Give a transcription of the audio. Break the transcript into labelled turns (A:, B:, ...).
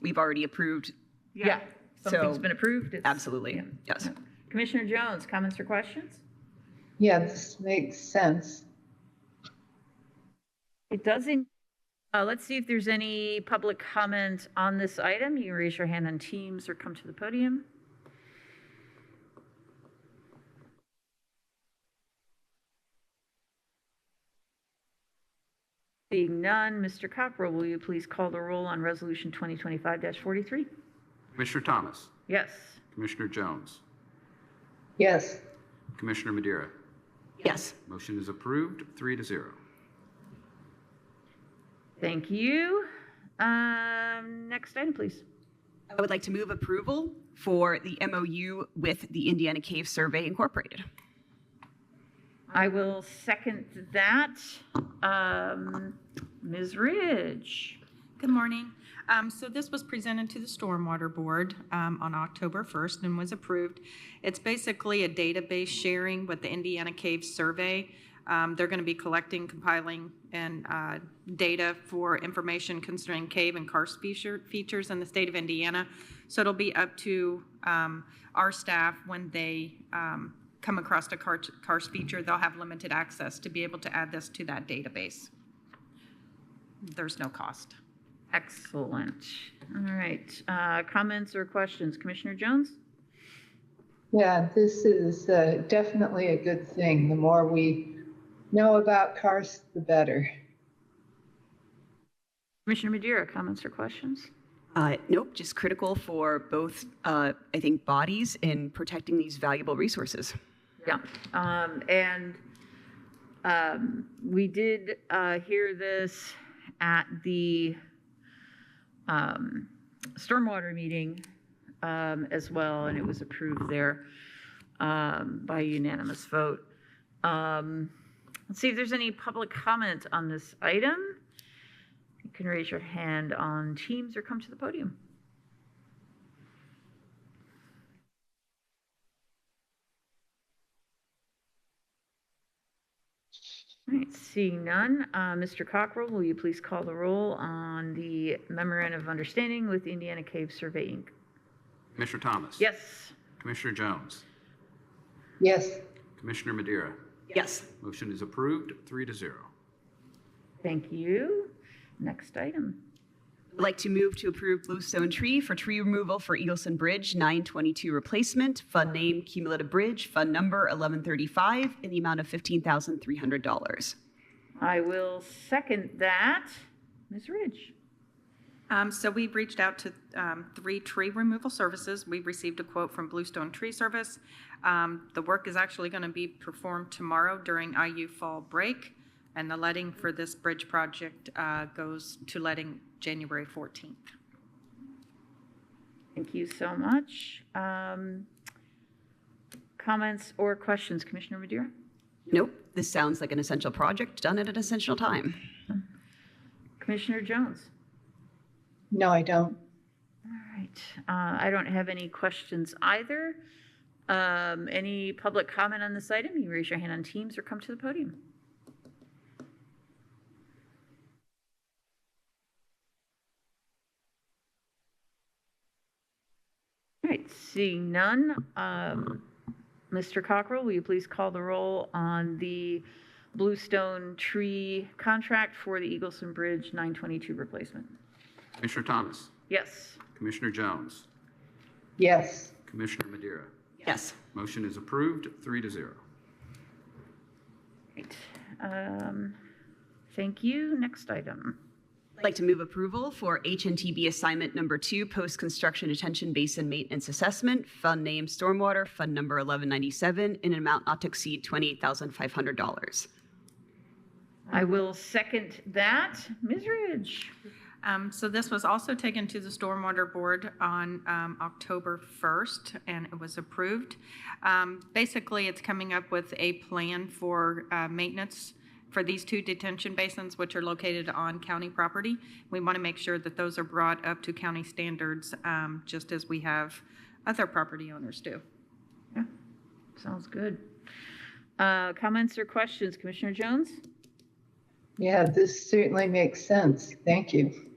A: we've already approved.
B: Yeah,
A: So-
B: something's been approved. it's-
A: Absolutely.
B: yeah.
A: Yes.
B: Commissioner Jones, comments or questions?
C: Yeah, this makes sense.
B: It doesn't, uh, let's see if there's any public comment on this item. You can raise your hand on Teams or come to the podium. Seeing none, Mr. Cockrell, will you please call the roll on Resolution 2025-43?
D: Commissioner Thomas,
B: Yes.
D: Commissioner Jones,
C: Yes,
D: Commissioner Madeira.
A: Yes.
D: Motion is approved, three to zero.
B: Thank you. Um, Next item, please.
A: I would like to move approval for the MOU with the Indiana Cave Survey Incorporated.
B: I will second that. Um, Ms. Ridge?
E: Good morning. Um, So this was presented to the Stormwater Board um, on October 1st and was approved. It's basically a database sharing with the Indiana Cave Survey. Um, They're going to be collecting, compiling, and uh, data for information concerning cave and karst feature- features in the state of Indiana. So it'll be up to um, our staff when they um, come across a karst karst feature, they'll have limited access to be able to add this to that database. There's no cost.
B: Excellent. All right, uh, comments or questions? Commissioner Jones?
C: yeah, this is uh, definitely a good thing. The more we know about karst, the better.
B: Commissioner Madeira, comments or questions?
A: Uh, nope, just critical for both, uh, I think, bodies in protecting these valuable resources.
B: Yeah, um, and, um, we did, uh, hear this at the, um, stormwater meeting, um, as well, and it was approved there, um, by unanimous vote. Um, let's see if there's any public comment on this item. You can raise your hand on Teams or come to the podium. All right, seeing none, uh, Mr. Cockrell, will you please call the roll on the memorandum of understanding with Indiana Cave Survey, Inc.?
D: Commissioner Thomas.
B: Yes.
D: Commissioner Jones,
C: Yes,
D: Commissioner Madeira.
A: Yes.
D: Motion is approved, three to zero.
B: Thank you. Next item.
A: I'd like to move to approve Bluestone Tree for tree removal for Eagleson Bridge 922 replacement, fund name Cumulative Bridge, fund number 1135, in the amount of $15,300.
B: I will second that. Ms. Ridge?
E: Um, so we've reached out to, um, three tree removal services. We've received a quote from Bluestone Tree Service. Um, the work is actually gonna be performed tomorrow during IU fall break. And the letting for this bridge project, uh, goes to letting January fourteenth.
B: Thank you so much. Um, Comments or questions, Commissioner Madeira?
A: Nope, this sounds like an essential project done at an essential time.
B: Commissioner Jones?
C: no, I don't.
B: All right, Uh, I don't have any questions either. Um, Any public comment on this item? You raise your hand on Teams or come to the podium. All right, seeing none, um, Mr. Cockrell, will you please call the roll on the Bluestone Tree contract for the Eagleson Bridge 922 replacement?
D: Commissioner Thomas,
B: Yes.
D: Commissioner Jones,
C: Yes,
D: Commissioner Madeira.
A: Yes.
D: Motion is approved, three to zero.
B: Great. Um, Thank you. Next item.
A: I'd like to move approval for HNTB assignment number two, post-construction detention basin maintenance assessment, fund name Stormwater, fund number 1197, in an amount not to exceed $28,500.
B: I will second that. Ms. Ridge?
E: Um, so this was also taken to the Stormwater Board on, um, October first, and it was approved. Um, basically, it's coming up with a plan for, uh, maintenance for these two detention basins, which are located on county property. We want to make sure that those are brought up to county standards, um, just as we have other property owners do.
B: Sounds good. Uh, Comments or questions? Commissioner Jones?
C: yeah, this certainly makes sense. Thank you.